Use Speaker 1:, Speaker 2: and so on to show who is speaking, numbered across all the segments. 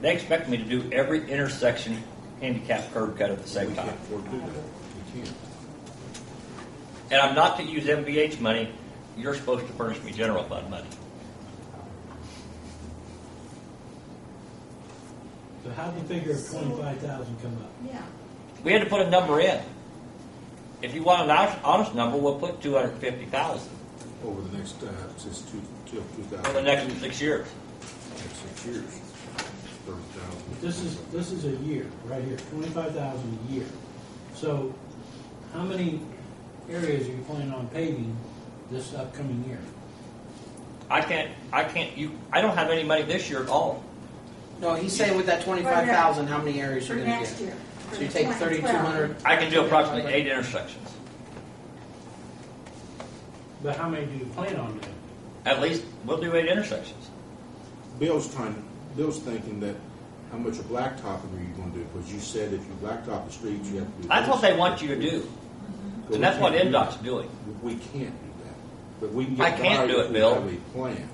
Speaker 1: They expect me to do every intersection handicap curb cut at the same time.
Speaker 2: afford to do that. We can't.
Speaker 1: And I'm not to use MVH money, you're supposed to furnish me general fund money.
Speaker 3: So how do you figure twenty-five thousand come up?
Speaker 4: Yeah,
Speaker 1: We had to put a number in. If you want an honest, honest number, we'll put two hundred fifty thousand
Speaker 2: Over the next, uh, since two, till two thousand.
Speaker 1: for the next six years.
Speaker 2: Six years, thirty thousand.
Speaker 3: This is, this is a year, right here, twenty-five thousand a year. So how many areas are you planning on paving this upcoming year?
Speaker 1: I can't, I can't, you, I don't have any money this year at all.
Speaker 5: No, he's saying with that twenty-five thousand, how many areas
Speaker 4: for
Speaker 5: you're gonna
Speaker 4: next
Speaker 5: get?
Speaker 4: year. for
Speaker 5: So you take
Speaker 4: 2012.
Speaker 5: thirty-two hundred.
Speaker 1: I can do approximately eight intersections,
Speaker 3: But how many do you plan on doing?
Speaker 1: at least, we'll do eight intersections.
Speaker 2: Bill's trying, Bill's thinking that how much of blacktopping are you gonna do? Because you said if you blacktop the streets, you have to do.
Speaker 1: That's
Speaker 2: this.
Speaker 1: what they want you to do,
Speaker 2: But we
Speaker 1: and that's what
Speaker 2: can't do
Speaker 1: NDOT's
Speaker 2: that.
Speaker 1: doing.
Speaker 2: We can't do that, but we can
Speaker 1: I
Speaker 2: get by
Speaker 1: can't do it,
Speaker 2: if we
Speaker 1: Bill.
Speaker 2: have a plan.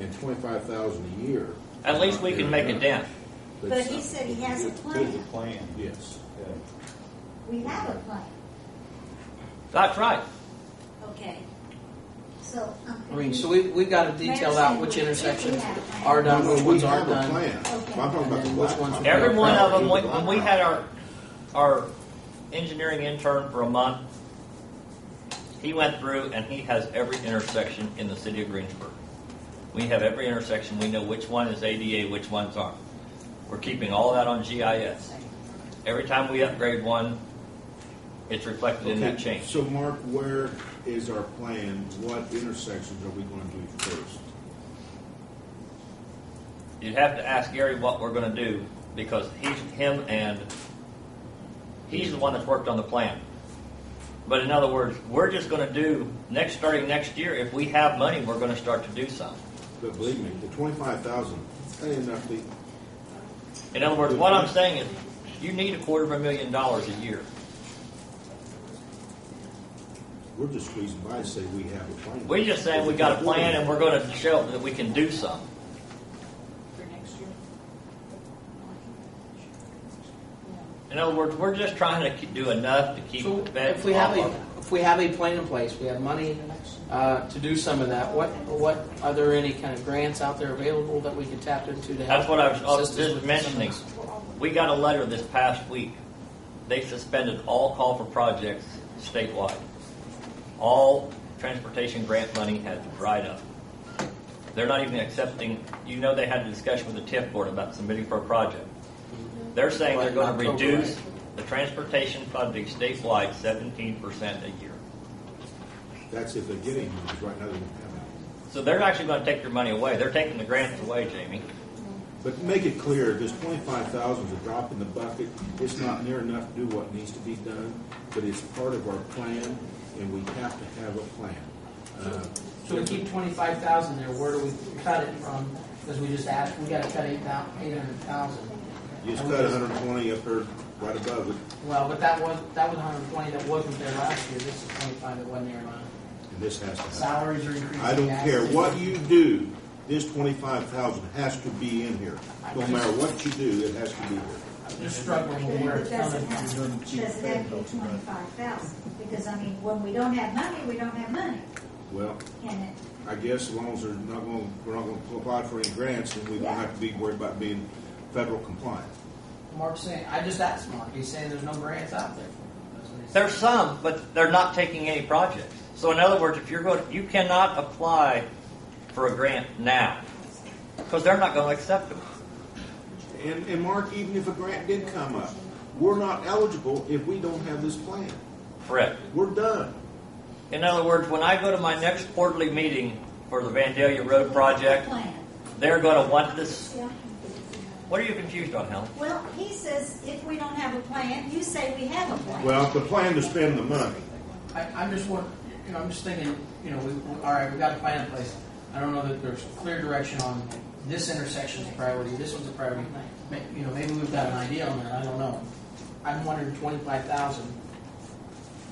Speaker 2: And twenty-five thousand a year.
Speaker 1: At
Speaker 2: is
Speaker 1: least
Speaker 2: not
Speaker 1: we can
Speaker 2: fair
Speaker 1: make a
Speaker 2: enough.
Speaker 1: dent.
Speaker 4: But he
Speaker 2: some-
Speaker 4: said he has a
Speaker 6: There's a
Speaker 4: plan.
Speaker 6: plan.
Speaker 2: Yes.
Speaker 6: Yeah.
Speaker 4: We have a plan,
Speaker 1: That's right.
Speaker 4: okay. So. um, I'm
Speaker 5: I mean, so
Speaker 4: confused.
Speaker 5: we, we've gotta detail out which intersections are
Speaker 2: No,
Speaker 5: done,
Speaker 2: no,
Speaker 5: which
Speaker 2: we
Speaker 5: ones aren't
Speaker 2: have a
Speaker 5: done.
Speaker 2: plan.
Speaker 4: Okay.
Speaker 2: I'm talking about the
Speaker 5: And then which ones
Speaker 2: blacktop.
Speaker 5: we
Speaker 1: Every one of
Speaker 2: Do
Speaker 1: them,
Speaker 2: the
Speaker 1: when, when we
Speaker 2: blacktop.
Speaker 1: had our, our engineering intern for a month, he went through and he has every intersection in the city of Greensburg. We have every intersection, we know which one is ADA, which ones aren't. We're keeping all that on GIS. Every time we upgrade one, it's reflected in that
Speaker 2: Okay,
Speaker 1: change.
Speaker 2: So Mark, where is our plan? What intersections are we going to do first?
Speaker 1: You'd have to ask Gary what we're gonna do, because he's, him and, he's the one that's worked on the plan. But in other words, we're just gonna do, next, starting next year, if we have money, we're gonna start to do some.
Speaker 2: But believe me, the twenty-five thousand, that ain't enough to,
Speaker 1: In other words, what I'm saying is, you need a quarter of a million dollars a year.
Speaker 2: we're just squeezing by to say we have a plan.
Speaker 1: We just saying we got a plan and we're gonna show that we can do some.
Speaker 4: For next year.
Speaker 1: In other words, we're just trying to ke- do enough to keep
Speaker 5: So
Speaker 1: the
Speaker 5: if
Speaker 1: feds
Speaker 5: we
Speaker 1: off
Speaker 5: have
Speaker 1: of
Speaker 5: a,
Speaker 1: it.
Speaker 5: if we have a plan in place, we have money, uh, to do some of that, what, what, are there any kind of grants out there available that we could tap into to help?
Speaker 1: That's what I was- I was
Speaker 5: assist us
Speaker 1: just
Speaker 5: with some of
Speaker 1: mentioning.
Speaker 5: this?
Speaker 1: We got a letter this past week. They suspended all call for projects statewide. All transportation grant money has dried up. They're not even accepting, you know, they had a discussion with the TIF board about submitting for a project. They're saying they're gonna
Speaker 5: Right, in October,
Speaker 1: reduce
Speaker 5: right?
Speaker 1: the transportation funding statewide seventeen percent a year.
Speaker 2: That's if they're getting, them, because right now they don't have any.
Speaker 1: So they're actually gonna take your money away. They're taking the grants away, Jamie.
Speaker 2: But make it clear, this twenty-five thousand is a drop in the bucket. It's not near enough to do what needs to be done, but it's part of our plan, and we have to have a plan. Uh,
Speaker 5: So we keep twenty-five thousand there, where do we cut it from? Because we just asked, we gotta cut eight thou, eight hundred thousand.
Speaker 2: You just cut hundred and twenty up there, right above it,
Speaker 5: Well, but that was, that was hundred and twenty that wasn't there last year, this is twenty-five that wasn't there last. year.
Speaker 2: and this has to happen.
Speaker 5: Salaries are increasing.
Speaker 2: I don't care
Speaker 5: taxes-
Speaker 2: what you do, this twenty-five thousand has to be in here. No matter what you do, it has to be here.
Speaker 5: I'm just struggling with where
Speaker 4: It
Speaker 5: it's coming
Speaker 4: doesn't
Speaker 5: from.
Speaker 4: have, doesn't have to be twenty-five thousand, because I mean, when we don't have money, we don't have money.
Speaker 2: Well,
Speaker 4: And it,
Speaker 2: I guess as long as they're not going, we're not going to apply for any grants, then we don't have to be worried about being federal compliant.
Speaker 5: Mark's saying, I just asked Mark, he's saying there's no grants out there. That's what he said.
Speaker 1: There's some, but they're not taking any projects. So in other words, if you're going, you cannot apply for a grant now because they're not going to accept them.
Speaker 2: And, and Mark, even if a grant did come up, we're not eligible if we don't have this plan.
Speaker 1: Correct.
Speaker 2: We're done.
Speaker 1: In other words, when I go to my next quarterly meeting for the Vandalia Road project,
Speaker 4: plan.
Speaker 1: they're going to want this. What are you confused on, Helen?
Speaker 4: Well, he says if we don't have a plan, you say we have a plan.
Speaker 2: Well, the plan to spend the money.
Speaker 5: I, I'm just want, you know, I'm just thinking, you know, we, we, all right, we got a plan in place. I don't know that there's clear direction on this intersection's a priority, this one's a priority. May- You know, maybe we've got an idea on that, I don't know. I'm wondering twenty-five thousand,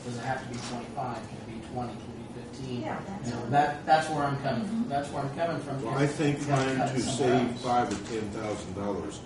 Speaker 5: does it have to be twenty-five, can it be twenty, can it be fifteen?
Speaker 4: Yeah, that's- Mm-hmm.
Speaker 5: You know, that, that's where I'm coming, that's where I'm coming from.
Speaker 2: Well, I think
Speaker 5: We've got
Speaker 2: trying
Speaker 5: cut
Speaker 2: to
Speaker 5: somewhere
Speaker 2: save
Speaker 5: else.
Speaker 2: five or ten thousand dollars